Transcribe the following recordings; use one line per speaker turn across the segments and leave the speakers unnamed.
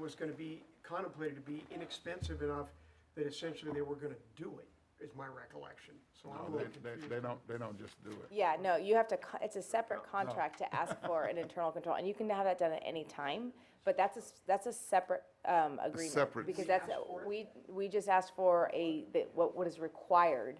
was gonna be contemplated to be inexpensive enough that essentially they were gonna do it, is my recollection. So I'm a
They,
little
they,
confused.
they don't, they don't just do it.
Yeah, no, you have to, co- it's a separate contract to ask for an internal control, and you can have that done at any time, but that's a, s- that's a separate, um, agreement.
separate-
Because
We
that's,
asked for it?
we, we just asked for a, that what, what is required,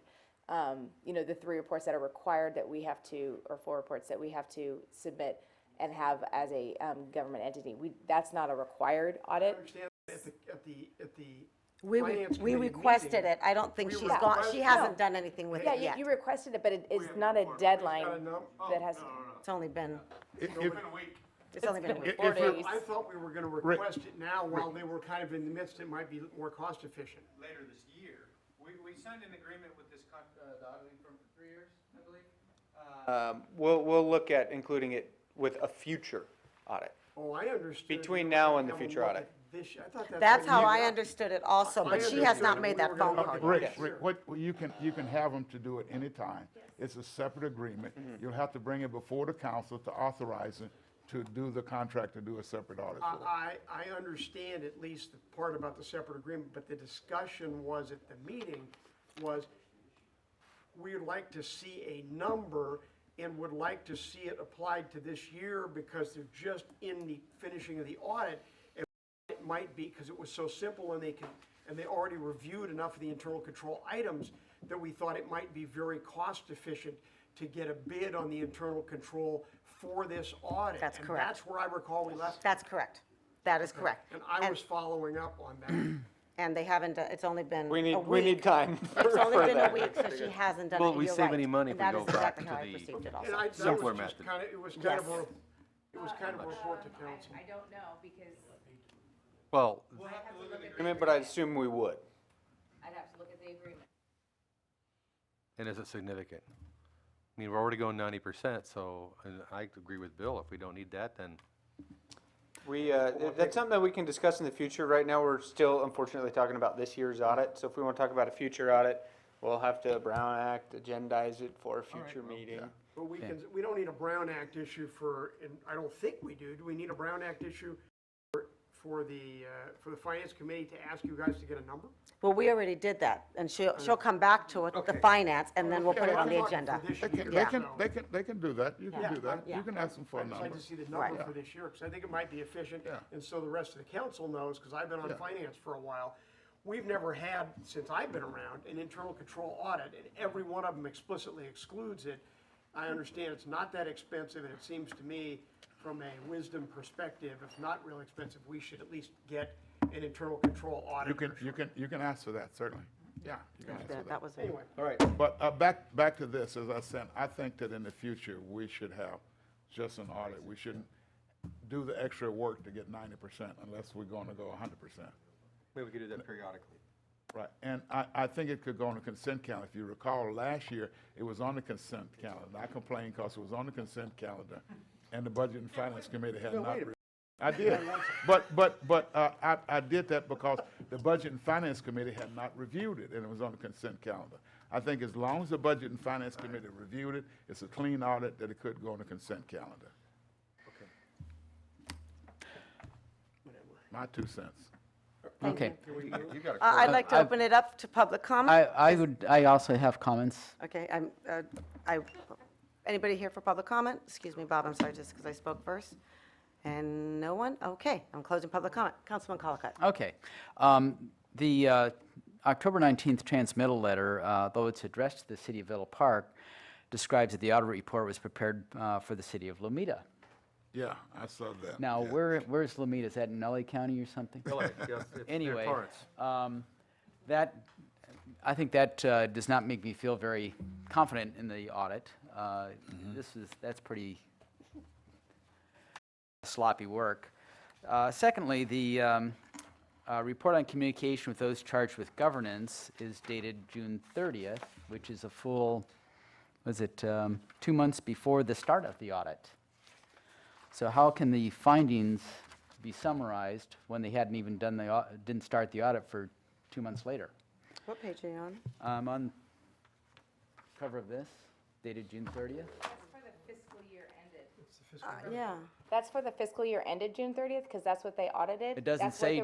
um, you know, the three reports that are required that we have to, or four reports that we have to submit and have as a, um, government entity. We, that's not a required
I
audit.
understand at the, at the, at the
We, re-
finance
we
committee
requested
meeting,
it. I don't think
we
she's
were
gone, she
requested-
hasn't done anything with
Yeah,
it
you,
yet.
you requested it, but it, it's
Wait,
not a
wait, got a
deadline
num- oh,
that has,
It's only been,
If-
no,
if-
wait a week.
it's only been a week.
if-
four
if you're-
days.
I thought we were gonna request it now while they were kind of in the midst, it might be more cost efficient.
later this year. We, we signed an agreement with this con, uh, the auditing firm for three years, I believe. Um, we'll, we'll look at including it with a future audit.
Oh, I understood.
Between now and the
Now
future
look
audit.
at This, I thought that's.
That's
what
how
you
I
got.
understood it also, but she
understood
has not
that
made
we
that
were gonna
phone
look
call
at
yet.
Rick,
Yes.
Rick, what, well, you can, you can have them to do it anytime. It's a separate agreement.
Mm-hmm.
You'll have to bring it before the council to authorize it to do the contract, to do a separate audit for.
I, I I understand at least the part about the separate agreement, but the discussion was at the meeting was, we'd like to see a number and would like to see it applied to this year because they're just in the finishing of the audit. And It might be, because it was so simple and they can, and they already reviewed enough of the internal control items that we thought it might be very cost efficient to get a bid on the internal control for this audit.
That's
And
correct.
that's where I recall we left
That's correct. That is correct.
and I was following up on that.
And they haven't, done- it's only been a
We
week.
need, we need time
It's only
for
been a
that.
week, so she hasn't done it.
Well, we
You're
save
right.
any money if
That
we
is
go back
exactly
to
how I
the-
perceived it
And I,
also.
that
Simpler
was just
method.
kind of, it was kind of a,
Yes.
it was kind of a report to
Um, I-
council.
I don't know, because
Well,
I'd have to look at the
Agreement, But I assume we would.
I'd have to look at the agreement.
and is it significant? I mean, we're already going ninety percent, so, and I agree with Bill, if we don't need that, then
We, uh, that's something that we can discuss in the future. Right now, we're still unfortunately talking about this year's audit. So if we want to talk about a future audit, we'll have to Brown Act, agendize it for a future meeting.
But we can, we don't need a Brown Act issue for, and I don't think we do, do we need a Brown Act issue for- for the, uh, for the finance committee to ask you guys to get a number?
Well, we already did that, and she'll, she'll come back to it, the
Okay.
finance, and then we'll put it on the
I'm talking
agenda.
for this
They can, they
year,
can,
so
they can, they can do that. You can do that. You can ask them for a
I'd just like
number.
to see the number for this year, because I think it might be efficient,
Yeah.
and so the rest of the council knows, because I've been on
Yeah.
finance for a while. We've never had, since I've been around, an internal control audit, and every one of them explicitly excludes it. I understand it's not that expensive, and it seems to me, from a wisdom perspective, if not real expensive, we should at least get an internal control audit.
You can, you can, you can ask for that, certainly. Yeah, you can ask for that.
That was.
Anyway,
All right,
But uh, back, back to this, as I said, I think that in the future, we should have just an audit. We shouldn't do the extra work to get ninety percent unless we're going to go hundred percent.
maybe we could do that periodically.
Right, and I, I think it could go on the consent calendar. If you recall, last year, it was on the consent calendar. I complained because it was on the consent calendar, and the Budget and Finance Committee had not. re- I did, but, but, but uh, I, I did that because the Budget and Finance Committee had not reviewed it, and it was on the consent calendar. I think as long as the Budget and Finance Committee reviewed it, it's a clean audit that it could go on the consent calendar. My two cents.
Okay.
I- I'd like to open it up to public comment.
I, I would, I also have comments.
Okay, I'm, uh, I, anybody here for public comment? Excuse me, Bob, I'm sorry, just because I spoke first. And no one? Okay, I'm closing public comment. Councilman Colacott.
Okay. Um, The uh, October 19th transmittal letter, uh, though it's addressed to the city of Villa Park, describes that the audit report was prepared uh, for the city of Lomita.
Yeah, I saw that.
Now,
yeah.
where, where's Lomita? Is that in LA County or something? Anyway, um, that, I think that uh, does not make me feel very confident in the audit. Uh,
Mm-hmm.
This is, that's pretty sloppy work. Uh, Secondly, the um, uh, report on communication with those charged with governance is dated June 30th, which is a full, was it, um, two months before the start of the audit. So how can the findings be summarized when they hadn't even done the, au- didn't start the audit for two months later?
What page are you on?
Um, on cover of this, dated June 30th.
That's for the fiscal year ended.
Uh, Yeah.
that's for the fiscal year ended June thirtieth, because that's what they audited.
It doesn't
That's what
say
the